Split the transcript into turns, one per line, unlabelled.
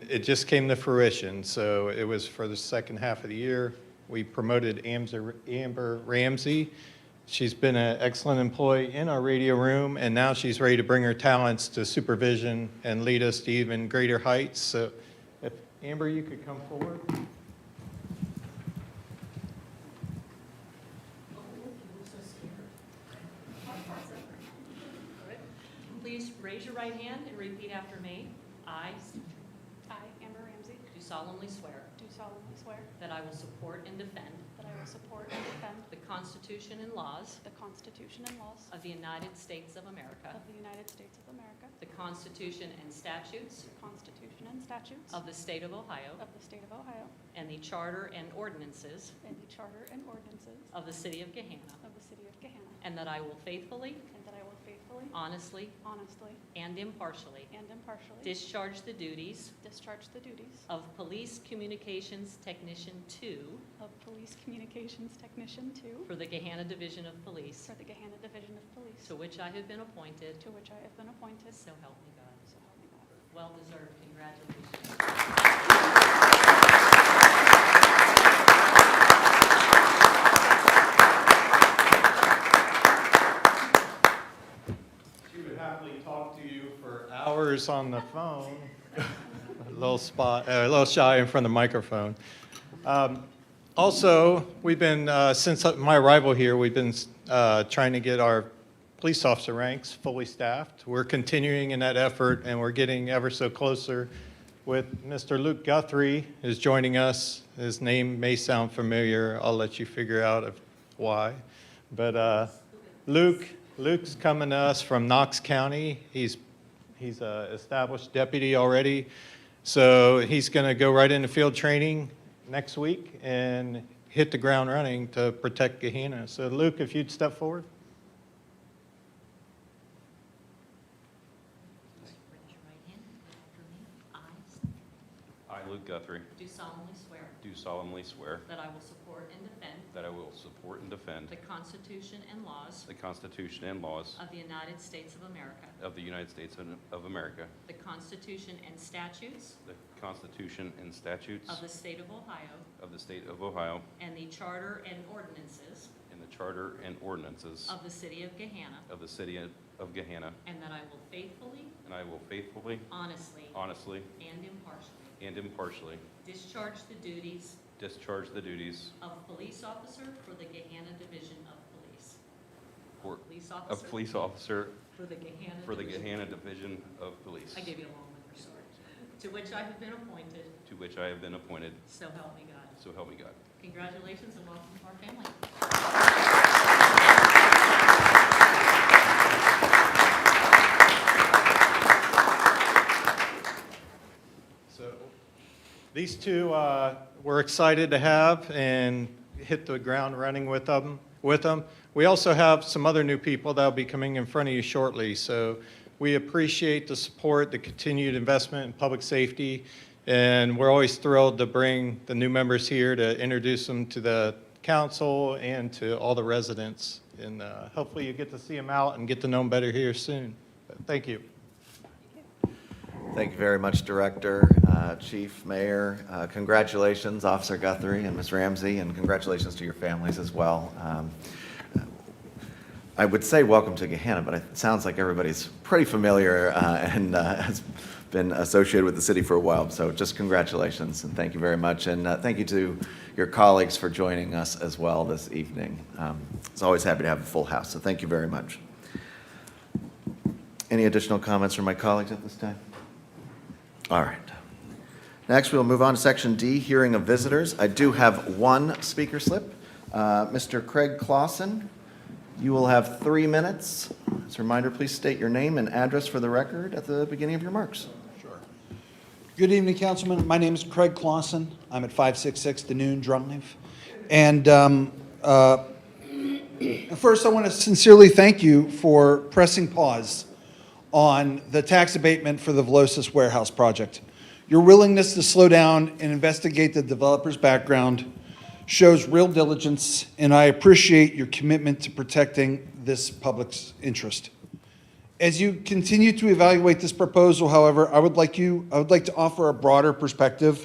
it just came to fruition, so it was for the second half of the year. We promoted Amzer- Amber Ramsey. She's been an excellent employee in our radio room, and now she's ready to bring her talents to supervision and lead us to even greater heights. So if, Amber, you could come forward.
Please raise your right hand and repeat after me. I
I, Amber Ramsey,
do solemnly swear
do solemnly swear
that I will support and defend
that I will support and defend
the Constitution and laws
the Constitution and laws
of the United States of America,
of the United States of America,
the Constitution and statutes
the Constitution and statutes
of the State of Ohio,
of the State of Ohio,
and the Charter and ordinances
and the Charter and ordinances
of the City of Gahanna,
of the City of Gahanna,
and that I will faithfully,
and that I will faithfully,
honestly,
honestly,
and impartially
and impartially
discharge the duties
discharge the duties
of Police Communications Technician 2
of Police Communications Technician 2
for the Gahanna Division of Police,
for the Gahanna Division of Police,
to which I have been appointed,
to which I have been appointed,
so help me God.
so help me God.
Well-deserved, congratulations.
She would happily talk to you for hours on the phone. A little spot, uh, a little shy in front of the microphone. Um, Also, we've been, uh, since my arrival here, we've been uh, trying to get our police officer ranks fully staffed. We're continuing in that effort, and we're getting ever so closer with Mr. Luke Guthrie is joining us. His name may sound familiar. I'll let you figure out if- why. But uh, Luke, Luke's coming to us from Knox County. He's, he's a established deputy already. So he's going to go right into field training next week and hit the ground running to protect Gehenna. So Luke, if you'd step forward.
Raise your right hand and repeat after me. I
I, Luke Guthrie,
do solemnly swear
do solemnly swear
that I will support and defend
that I will support and defend
the Constitution and laws
the Constitution and laws
of the United States of America,
of the United States of America,
the Constitution and statutes
the Constitution and statutes
of the State of Ohio,
of the State of Ohio,
and the Charter and ordinances
and the Charter and ordinances
of the City of Gahanna,
of the City of Gahanna,
and that I will faithfully,
and I will faithfully,
honestly,
honestly,
and impartially
and impartially
discharge the duties
discharge the duties
of police officer for the Gahanna Division of Police.
for-
Police
of
officer
police officer
for the Gahanna
for the
Division.
Gahanna Division of Police,
I gave you a long one, sorry. To which I have been appointed,
to which I have been appointed,
so help me God.
so help me God.
Congratulations and welcome to our family.
So these two, uh, we're excited to have and hit the ground running with them, with them. We also have some other new people that'll be coming in front of you shortly. So we appreciate the support, the continued investment in public safety. And we're always thrilled to bring the new members here to introduce them to the council and to all the residents. And uh, hopefully you get to see them out and get to know them better here soon. But Thank you.
Thank you very much, Director, uh, Chief, Mayor. Uh, Congratulations, Officer Guthrie and Ms. Ramsey, and congratulations to your families as well. Um, I would say welcome to Gehanna, but it sounds like everybody's pretty familiar uh, and uh, has been associated with the city for a while. So just congratulations and thank you very much. And uh, thank you to your colleagues for joining us as well this evening. Um, It's always happy to have a full house, so thank you very much. Any additional comments from my colleagues at this time? All right. Next, we'll move on to Section D, Hearing of Visitors. I do have one speaker slip. Uh, Mr. Craig Clausen, you will have three minutes. As a reminder, please state your name and address for the record at the beginning of your remarks.
Good evening, Councilman. My name is Craig Clausen. I'm at 566 The Noon Drive. And um, uh, first, I want to sincerely thank you for pressing pause on the tax abatement for the Velocis Warehouse project. Your willingness to slow down and investigate the developer's background shows real diligence, and I appreciate your commitment to protecting this public's interest. As you continue to evaluate this proposal, however, I would like you, I would like to offer a broader perspective